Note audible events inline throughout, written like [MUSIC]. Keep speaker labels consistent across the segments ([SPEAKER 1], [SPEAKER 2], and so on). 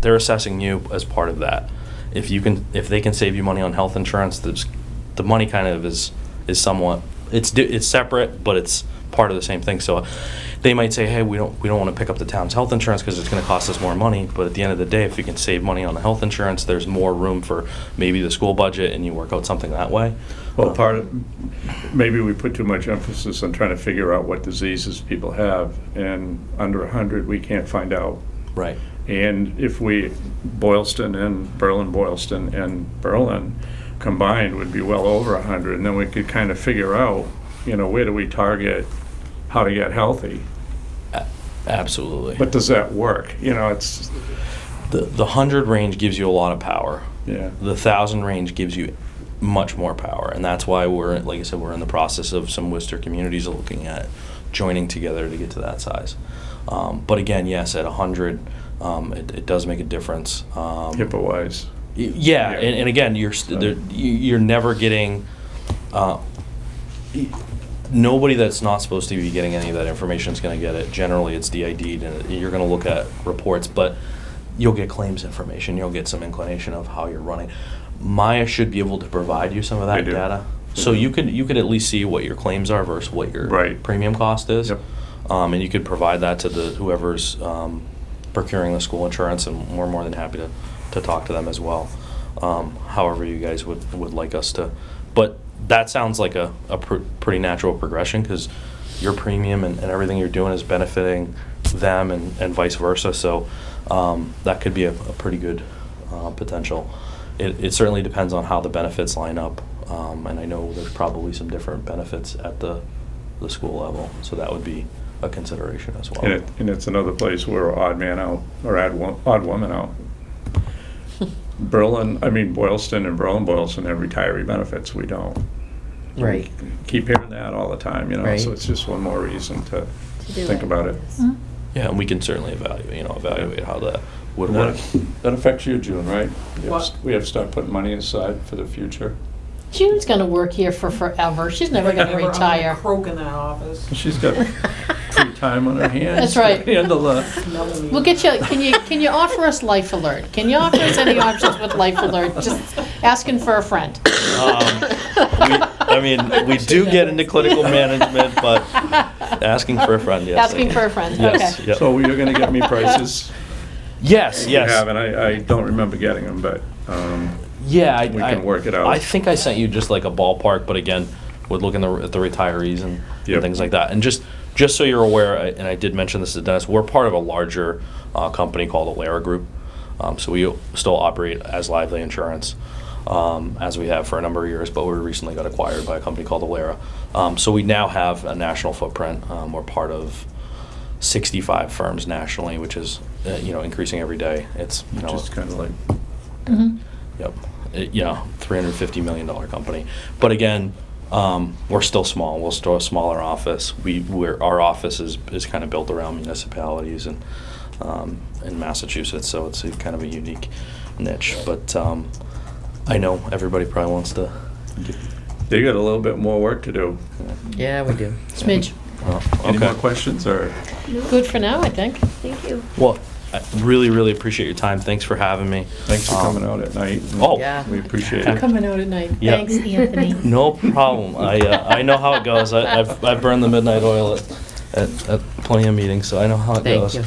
[SPEAKER 1] they're assessing you as part of that. If you can, if they can save you money on health insurance, there's, the money kind of is, is somewhat, it's, di- it's separate, but it's part of the same thing. So they might say, hey, we don't, we don't want to pick up the town's health insurance because it's going to cost us more money. But at the end of the day, if you can save money on the health insurance, there's more room for maybe the school budget and you work out something that way.
[SPEAKER 2] Well, part of, maybe we put too much emphasis on trying to figure out what diseases people have, and under 100, we can't find out.
[SPEAKER 1] Right.
[SPEAKER 2] And if we, Boylston and Berlin, Boylston and Berlin combined would be well over 100, and then we could kind of figure out, you know, where do we target how to get healthy?
[SPEAKER 1] A- Absolutely.
[SPEAKER 2] But does that work? You know, it's,
[SPEAKER 1] The, the 100 range gives you a lot of power.
[SPEAKER 2] yeah.
[SPEAKER 1] The 1,000 range gives you much more power. And that's why we're, like I said, we're in the process of some Worcester communities looking at joining together to get to that size. Um, but again, yes, at 100, um, it, it does make a difference. Um,
[SPEAKER 2] HIPAA-wise.
[SPEAKER 1] Y- Yeah,
[SPEAKER 2] Yeah.
[SPEAKER 1] and, and again, you're st- there, you, you're never getting uh, y- nobody that's not supposed to be getting any of that information is going to get it. Generally, it's DID'd, and you're going to look at reports, but you'll get claims information. You'll get some inclination of how you're running. Maya should be able to provide you some of
[SPEAKER 2] They
[SPEAKER 1] that
[SPEAKER 2] do.
[SPEAKER 1] data,
[SPEAKER 2] They
[SPEAKER 1] so
[SPEAKER 2] do.
[SPEAKER 1] you could you could at least see what your claims are versus what your
[SPEAKER 2] Right.
[SPEAKER 1] premium cost is.
[SPEAKER 2] Yep.
[SPEAKER 1] Um, and you could provide that to the whoever's um, procuring the school insurance, and we're more than happy to, to talk to them as well. Um, however, you guys would, would like us to. But that sounds like a, a pr- pretty natural progression because your premium and, and everything you're doing is benefiting them and, and vice versa. So um, that could be a, a pretty good uh, potential. It, it certainly depends on how the benefits line up. Um, and I know there's probably some different benefits at the the school level. So that would be a consideration as well.
[SPEAKER 2] And it, and it's another place where we're odd man out, or odd, wo- odd woman
[SPEAKER 3] [LAUGHS]
[SPEAKER 2] out. Berlin, I mean Boylston and Berlin Boylston have retiree benefits, we don't.
[SPEAKER 3] Right.
[SPEAKER 2] Keep hearing that all the time, you know, so
[SPEAKER 3] Right. Mm-hmm.
[SPEAKER 2] it's just one more reason to
[SPEAKER 4] To do
[SPEAKER 2] think about it.
[SPEAKER 4] yes.
[SPEAKER 5] Mm.
[SPEAKER 1] Yeah, and we can certainly evaluate, you know, evaluate how that would
[SPEAKER 2] And [LAUGHS]
[SPEAKER 1] work.
[SPEAKER 2] That that affects you, June, right? We have
[SPEAKER 3] What?
[SPEAKER 2] st- We have to start putting money aside for the future.
[SPEAKER 5] June's gonna work here for forever. She's never gonna
[SPEAKER 3] Never, I'm gonna
[SPEAKER 5] retire.
[SPEAKER 3] Croak in that office.
[SPEAKER 2] She's
[SPEAKER 5] [LAUGHS]
[SPEAKER 2] got free time on her hands.
[SPEAKER 5] That's right.
[SPEAKER 2] to Handle that.
[SPEAKER 3] Another
[SPEAKER 5] We'll
[SPEAKER 3] meeting.
[SPEAKER 5] get you, can you, can you offer us Life Alert? Can you offer us any options with Life Alert? Just asking for a friend.
[SPEAKER 1] Um, we- I mean, we do get into clinical management, but asking for a friend, yes. I
[SPEAKER 5] Asking for a friend,
[SPEAKER 1] Yes,
[SPEAKER 5] okay.
[SPEAKER 1] yep.
[SPEAKER 2] So you're gonna get me
[SPEAKER 5] [LAUGHS]
[SPEAKER 2] prices?
[SPEAKER 1] Yes,
[SPEAKER 2] You have,
[SPEAKER 1] yes.
[SPEAKER 2] and I, I don't remember getting them, but, um,
[SPEAKER 1] Yeah. I-
[SPEAKER 2] We
[SPEAKER 1] I-
[SPEAKER 2] can work it out.
[SPEAKER 1] I think I sent you just like a ballpark, but again, would look in the, at the retirees and and
[SPEAKER 2] Yep.
[SPEAKER 1] things like that. And just, just so you're aware, I- and I did mention this to Dennis, we're part of a larger uh, company called Alara Group. Um, So we still operate as Lively Insurance, um, as we have for a number of years, but we recently got acquired by a company called Alara. Um, So we now have a national footprint. Um, We're part of 65 firms nationally, which is, uh, you know, increasing every day. It's, you know.
[SPEAKER 2] just kinda like,
[SPEAKER 5] Mhm.
[SPEAKER 1] Yep. Uh, It, you know, $350 million company. But again, um, we're still small. We're still a smaller office. We, we're, our office is, is kind of built around municipalities and, um, in Massachusetts, so it's a kind of a unique niche. But um, I know everybody probably wants to.
[SPEAKER 2] they got a little bit more work to do.
[SPEAKER 3] Yeah, we do.
[SPEAKER 5] Smidge.
[SPEAKER 1] Well,
[SPEAKER 2] Any more
[SPEAKER 1] Oh, okay.
[SPEAKER 2] questions, or?
[SPEAKER 4] No,
[SPEAKER 5] Good for now, I think.
[SPEAKER 4] Thank you.
[SPEAKER 1] Well, I really, really appreciate your time. Thanks for having me.
[SPEAKER 2] Thanks for
[SPEAKER 1] Um,
[SPEAKER 2] coming out at night.
[SPEAKER 1] Oh.
[SPEAKER 3] Yeah.
[SPEAKER 2] We appreciate
[SPEAKER 1] Yeah.
[SPEAKER 2] it.
[SPEAKER 5] Coming out at night.
[SPEAKER 1] Yeah.
[SPEAKER 5] Thanks,
[SPEAKER 4] Anthony.
[SPEAKER 1] [LAUGHS] No problem. I, uh, I know how it goes. I, I've, I've burned the midnight oil at, at, at plenty of meetings, so I know how it
[SPEAKER 3] Thank
[SPEAKER 1] goes.
[SPEAKER 3] you.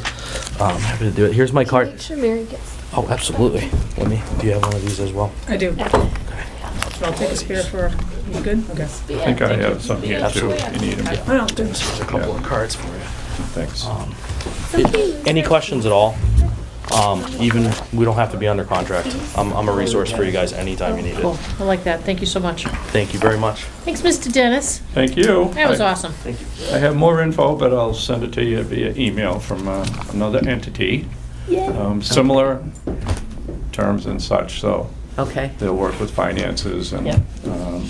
[SPEAKER 1] Um, I'm happy to do it. Here's my card.
[SPEAKER 4] Make sure Mary gets.
[SPEAKER 1] Oh, absolutely. Let me, do you have one of these as well?
[SPEAKER 6] I do. So I'll take a spear for, you good? Okay.
[SPEAKER 2] I think I have some here too,
[SPEAKER 1] Absolutely.
[SPEAKER 2] if you need them.
[SPEAKER 6] Well, good.
[SPEAKER 1] There's a couple of cards for you.
[SPEAKER 2] Thanks.
[SPEAKER 1] Um, Any questions at all? Um, even, we don't have to be under contract.
[SPEAKER 4] Mm-hmm.
[SPEAKER 1] I'm, I'm a resource for you guys anytime you need
[SPEAKER 5] Cool,
[SPEAKER 1] it.
[SPEAKER 5] I like that. Thank you so much.
[SPEAKER 1] Thank you very much.
[SPEAKER 5] Thanks, Mr. Dennis.
[SPEAKER 2] Thank you.
[SPEAKER 5] That was
[SPEAKER 2] I-
[SPEAKER 5] awesome.
[SPEAKER 1] Thank you.
[SPEAKER 5] [LAUGHS]
[SPEAKER 2] I have more info, but I'll send it to you via email from uh, another entity,
[SPEAKER 4] Yeah.
[SPEAKER 2] um, similar terms and such, so
[SPEAKER 3] Okay.
[SPEAKER 2] they'll work with finances and
[SPEAKER 5] Yep.
[SPEAKER 2] um,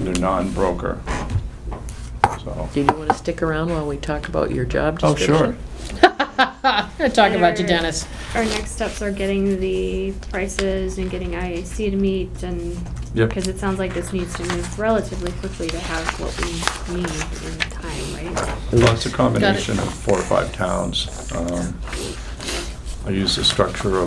[SPEAKER 2] they're non-broker, so.
[SPEAKER 3] Do you want to stick around while we talk about your job
[SPEAKER 2] Oh,
[SPEAKER 3] description?
[SPEAKER 2] sure.
[SPEAKER 5] I'm gonna talk about you, Dennis.
[SPEAKER 4] Our next steps are getting the prices and getting IAC to meet and,
[SPEAKER 2] Yep.
[SPEAKER 4] because it sounds like this needs to move relatively quickly to have what we need in time, right?
[SPEAKER 2] Well, it's a combination of four or five towns. Um, I use the structure of